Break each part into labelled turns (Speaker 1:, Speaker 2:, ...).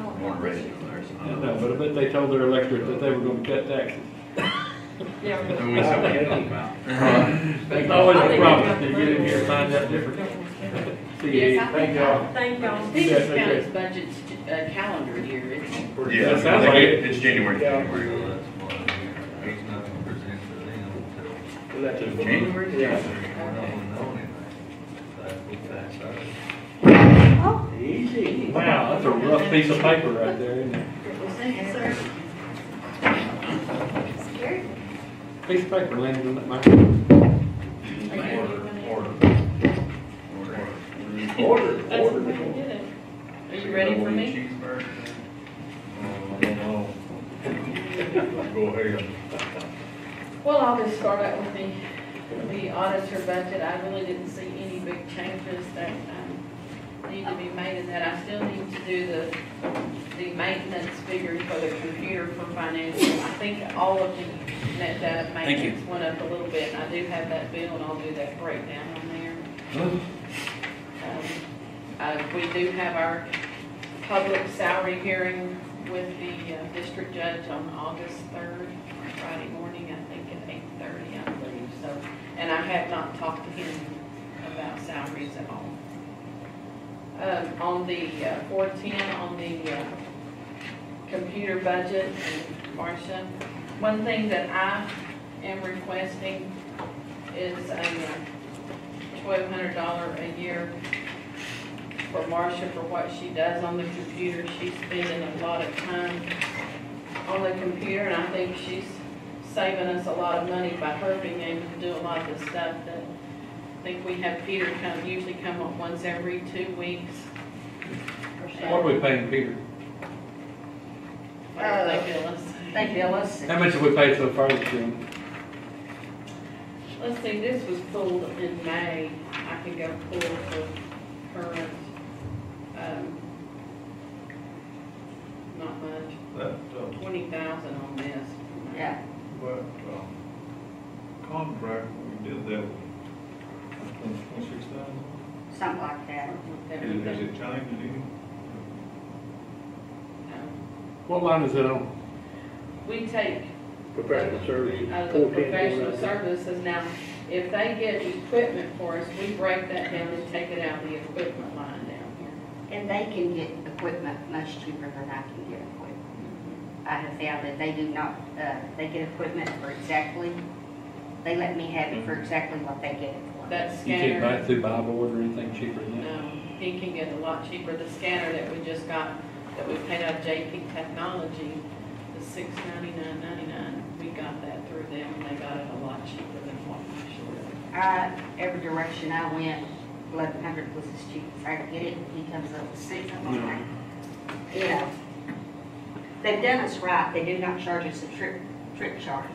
Speaker 1: original or something.
Speaker 2: Yeah, No, but, but they told their electorate that they were gonna cut taxes.
Speaker 3: Yeah, we're
Speaker 1: Who
Speaker 3: gonna-
Speaker 1: we talking about?
Speaker 2: It's always
Speaker 3: I
Speaker 2: a
Speaker 3: think
Speaker 2: problem to
Speaker 3: we've got
Speaker 2: get in here and
Speaker 3: the
Speaker 2: find out different. See,
Speaker 4: Yes, I
Speaker 2: thank
Speaker 4: think-
Speaker 2: y'all.
Speaker 3: Thank y'all.
Speaker 4: Peters
Speaker 2: okay.
Speaker 4: County's budget's uh, calendar year, it's,
Speaker 1: Yeah,
Speaker 2: That sounds like it.
Speaker 1: it's January,
Speaker 5: Yeah.
Speaker 1: January.
Speaker 6: Well, that's why he's not gonna present to them until
Speaker 1: January?
Speaker 5: Yeah.
Speaker 6: January. We're not gonna know anything. That's what that's our-
Speaker 5: Easy.
Speaker 2: Wow, that's a rough piece of paper right there, isn't it? Piece of paper landed on that microphone.
Speaker 1: Order, order. Order.
Speaker 5: Order,
Speaker 3: That's
Speaker 5: order.
Speaker 3: what we did it.
Speaker 4: are you ready for me?
Speaker 1: Cheeseburger.
Speaker 6: Oh, I don't know. Go ahead.
Speaker 4: Well, I'll just start out with the, the auditor budget. I really didn't see any big changes that, um, need to be made in that. I still need to do the, the maintenance figures for the computer for financial. I think all of the net data maintenance went up a little bit, and I do have that bill, and I'll do that breakdown on there. Um, Uh, we do have our public salary hearing with the uh, district judge on August third, Friday morning, I think at eight thirty, I believe, so. And I have not talked to him about salaries at all. Um, on the four-ten, on the, uh, computer budget, Marcia, one thing that I am requesting is a twelve hundred dollar a year for Marcia for what she does on the computer. She's spending a lot of time on the computer, and I think she's saving us a lot of money by her being able to do a lot of the stuff that, I think we have Peter come, usually come up once every two weeks. or so.
Speaker 2: What are we paying Peter?
Speaker 4: Or they bill us.
Speaker 3: Thank you, Ellis.
Speaker 2: How much have we paid so far this year?
Speaker 4: Let's see, this was pulled in May. I can go pull the current, um, not much,
Speaker 6: That, uh,
Speaker 4: twenty thousand on this.
Speaker 3: Yeah.
Speaker 6: but, um, contract, we did that one, twenty-six thousand?
Speaker 3: Something like that.
Speaker 6: Is
Speaker 4: Everything.
Speaker 6: it changed any?
Speaker 4: Um,
Speaker 2: What line is it on?
Speaker 4: We take
Speaker 5: Professional services,
Speaker 4: out of Oh, the
Speaker 5: four ten, four
Speaker 4: professional
Speaker 5: nine.
Speaker 4: services. Now, if they get equipment for us, we break that down and take it out of the equipment line down here.
Speaker 3: And they can get equipment much cheaper than I can get equipment. I have found that they do not, uh, they get equipment for exactly, they let me have it for exactly what they get it for.
Speaker 4: That
Speaker 2: You
Speaker 4: scanner.
Speaker 2: can't buy it through buy board or anything cheaper than that?
Speaker 4: Um, he can get a lot cheaper, the scanner that we just got, that we paid out of JP Technology, the six ninety-nine ninety-nine, we got that through them, and they got it a lot cheaper than what we should.
Speaker 3: I, every direction I went, eleven hundred was as cheap as I could get it, he comes up with six, I'm
Speaker 2: No.
Speaker 3: like, you know. They've done us right, they do not charge us a trip, trip charge,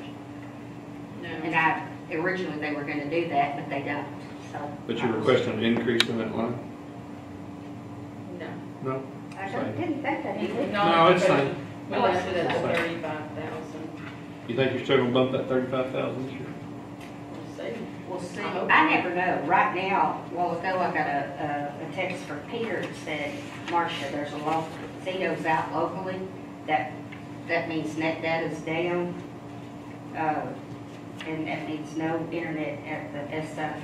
Speaker 3: and
Speaker 4: No,
Speaker 3: I, originally they were gonna do that, but they don't, so.
Speaker 2: But you're requesting an increase in that line?
Speaker 4: no.
Speaker 2: No?
Speaker 3: I don't, didn't think that, did we?
Speaker 2: No, it's fine.
Speaker 4: We left it at the thirty-five thousand,
Speaker 2: You think you're still gonna bump that thirty-five thousand this year?
Speaker 4: we'll see.
Speaker 3: We'll see.
Speaker 4: I hope-
Speaker 3: I never know. Right now, a while ago, I got a, a- a text from Peter that said, Marcia, there's a lot of Zito's out locally. That, that means net data's down. Uh, and that means no internet at the SO.
Speaker 4: And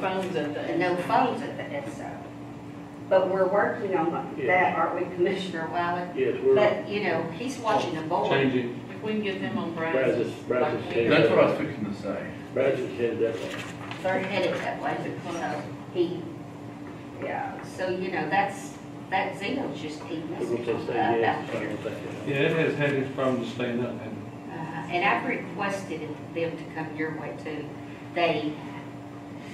Speaker 3: So,
Speaker 4: phones at the.
Speaker 3: and no phones at the SO. But we're working on that,
Speaker 5: Yeah.
Speaker 3: aren't we, Commissioner Wiley?
Speaker 5: Yes, we're,
Speaker 3: But, you know, he's watching the board.
Speaker 2: Changing,
Speaker 4: If we can get them on Brazos.
Speaker 5: Brazos- Brazos
Speaker 4: like we-
Speaker 5: Tech.
Speaker 1: That's what I was fixing to say.
Speaker 5: Brazos said that one.
Speaker 3: they're headed that way, so he, yeah, so, you know, that's, that Zeno's just keep
Speaker 5: We're
Speaker 3: messing
Speaker 5: gonna say
Speaker 3: up
Speaker 5: yes,
Speaker 3: out
Speaker 5: I'm
Speaker 3: there.
Speaker 5: gonna say
Speaker 2: yeah, it has had its problems staying up, hasn't
Speaker 3: Uh, And I've requested them to come your way too. They,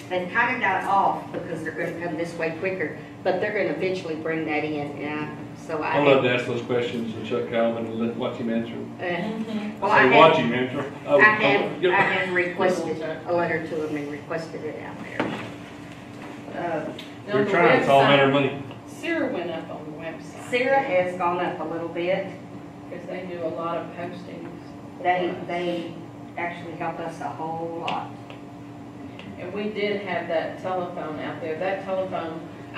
Speaker 3: they've kind of got off because they're gonna come this way quicker, but they're gonna eventually bring that in, and I, so
Speaker 2: it? I love
Speaker 3: I.
Speaker 2: to ask those questions and Chuck Calvin and let- watch him answer. them.
Speaker 3: uh,
Speaker 4: Mhm.
Speaker 3: Well,
Speaker 2: I
Speaker 3: I
Speaker 2: say, watch
Speaker 3: have,
Speaker 2: him answer.
Speaker 3: I
Speaker 2: Oh, oh,
Speaker 3: have, I
Speaker 2: yeah.
Speaker 3: have requested a letter to them and requested it out there. Uh,
Speaker 4: Now,
Speaker 2: We're
Speaker 4: the
Speaker 2: trying, it's all a matter of
Speaker 4: website-
Speaker 2: money.
Speaker 4: Sarah went up on the website.
Speaker 3: Sarah has gone up a little bit.
Speaker 4: Because they do a lot of postings. for
Speaker 3: They,
Speaker 4: us.
Speaker 3: they actually help us a whole lot.
Speaker 4: And we did have that telephone out there. That telephone